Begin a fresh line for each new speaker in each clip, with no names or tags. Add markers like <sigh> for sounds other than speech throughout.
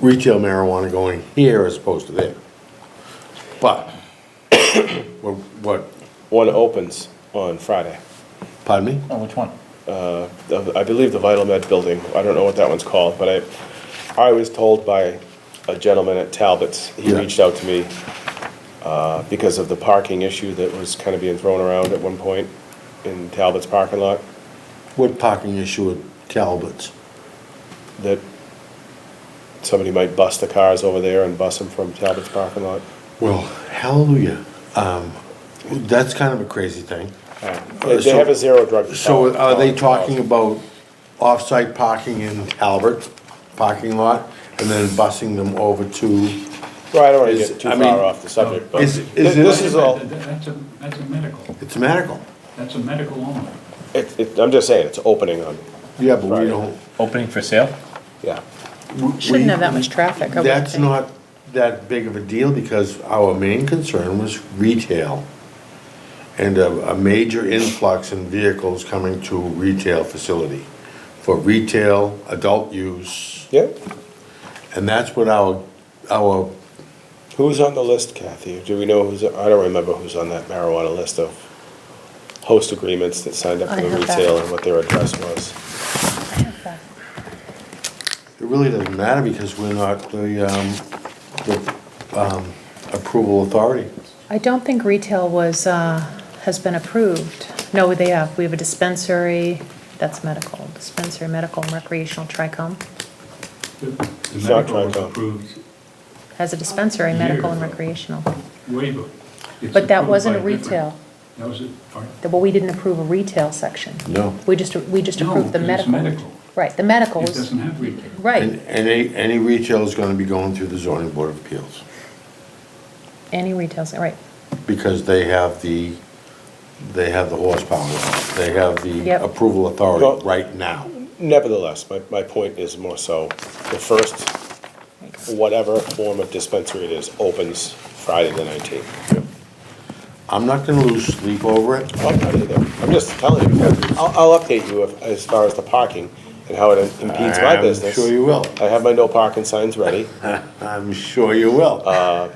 retail marijuana going here as opposed to there. But, <coughs> what, what,
One opens on Friday.
pardon me?
Oh, which one?
The- I believe the Vital Med building, I don't know what that one's called, but I, I was told by a gentleman at Talbot's, he
Yeah.
reached out to me uh, because of the parking issue that was kind of being thrown around at one point in Talbot's parking lot,
What parking issue at Talbot's?
that somebody might bust the cars over there and bus them from Talbot's parking lot.
Well, hallelujah. Um, that's kind of a crazy thing.
They they have a zero drug.
Uh, So are they talking
policy.
about off-site parking in Talbot parking lot and then busing them over to?
Well, I don't want to
is-
get too
I mean,
far off the subject, but
is- is
thi-
it-
this is all,
That's a, that's a medical,
It's medical.
that's a medical only.
it- it- I'm just saying, it's opening on,
Yeah, but we
Right.
don't.
Opening for sale?
yeah.
we-
Shouldn't have that much traffic, I would
That's not that big of a deal because our main concern was retail and a, a major influx in vehicles coming to retail facility for retail, adult use,
Yeah,
and that's what our, our,
who's on the list, Kathy? Do we know who's, I don't remember who's on that marijuana list of host agreements that signed up
I
for the
have that.
retail and what their address was.
it really doesn't matter because we're not the, um, the, um, approval authority.
I don't think retail was, uh, has been approved. No, they have, we have a dispensary, that's medical, dispensary, medical and recreational, Tricom
The- The
It's not
medical was
Tricom.
approved
has a dispensary, medical and
Years ago.
recreational.
way before. It's
But that
approved
wasn't
by
a
different-
retail,
That was, a- pardon?
That- but we didn't approve a retail section.
No.
We just, we just
No,
approved the
because it's
medical.
medical.
Right, the medical
it
was,
doesn't have retail.
And
right,
any, any retail is gonna be going through the zoning board of appeals
any retail, se- right.
because they have the, they have the horsepower, they have the
Yep.
approval
Well-
authority right now.
Nevertheless, my, my point is more so, the first, whatever form of dispensary it is, opens Friday the nineteenth. Oh,
I'm not gonna lose sleep over it.
I'm not either. I'm just telling you, I'll, I'll update you if- as far as the parking and how it impedes my
I'm
business.
Sure you will.
I have my no parking signs ready.
I'm sure you
Uh,
will.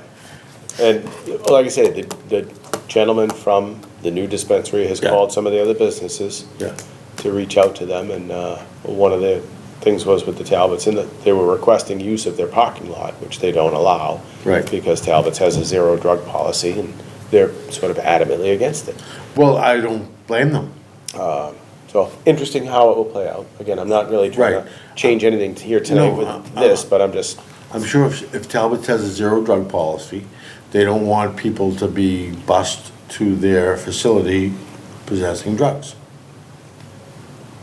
And like I said, the, the gentleman from the new dispensary has
Yeah.
called some of the other businesses
Yeah.
to reach out to them, and, uh, one of the things was with the Talbots, and that they were requesting use of their parking lot, which they don't allow.
Right.
Because Talbots has a zero drug policy, and they're sort of adamantly against it.
Well, I don't blame them.
So, interesting how it will play out. Again, I'm not really trying
Right.
to change anything to here tonight
No, uh,
with this,
uh,
but I'm just,
I'm sure if if Talbot has a zero drug policy, they don't want people to be bused to their facility possessing drugs.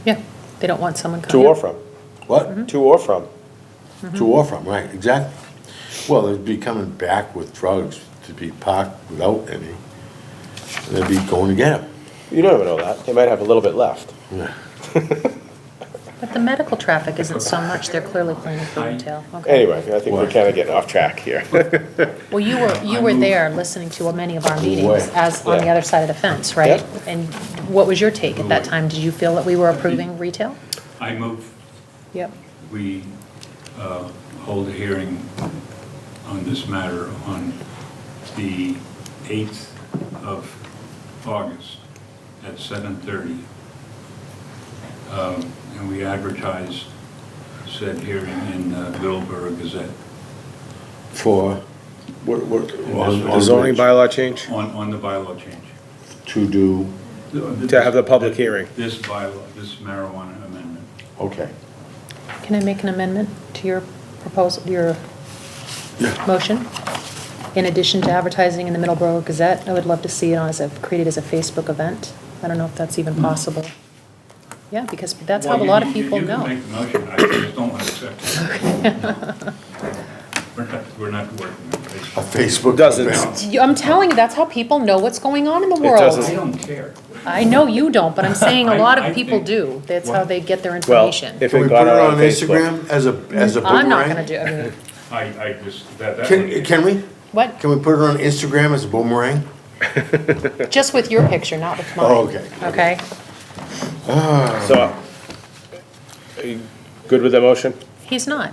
Yeah, they don't want someone
to
coming.
or from,
What?
to or from.
To or from, right, exactly. Well, they'd be coming back with drugs to be parked without any. They'd be going to get them.
You don't even know that. They might have a little bit left.
But the medical traffic isn't so much, they're clearly planning for retail, okay.
Anyway, I think we're
Why?
kind of getting off track here.
Well, you were, you
I
were
moved-
there listening to many of our
way.
meetings as on the
Yeah.
other side of the fence, right?
Yep.
And what was your take at that time? Did you feel that we were
Mm-hmm.
approving retail?
I move
Yep.
we uh, hold a hearing on this matter on the 8th of August at 7:30. Um, And we advertise said hearing in uh, Middleborough Gazette
For, what, what? on- on which-
bylaw change?
on, on the bylaw change.
To do,
To have the public hearing.
This bylaw, this marijuana amendment.
okay.
Can I make an amendment to your proposal, your motion? In addition to advertising in the Middleborough Gazette, I would love to see it on as a, created as a Facebook event. I don't know if that's
Mm.
even possible. Yeah, because that's how a
Well, you
lot of
can- you-
people
You
know.
can make the motion, I just don't want to accept
<laughs>
it. We're not, we're not working on
A
Facebook.
Facebook.
Doesn't-
event.
You- I'm telling you, that's how people know what's going on in the world.
doesn't-
I don't care.
I know you don't, but I'm saying a
<laughs> I-
lot
I
of people
think-
do. That's how they get their
Well,
information.
if
Can
it
we
got
put it
out
on
on Facebook.
Instagram as a, as a boomerang?
I'm not gonna do, I mean,
I, I just, that, that.
Can, can we?
what,
Can we put it on Instagram as a boomerang?
just with your picture, not with mine.
Oh, okay.
Okay,
So, are you good with the motion?
he's not.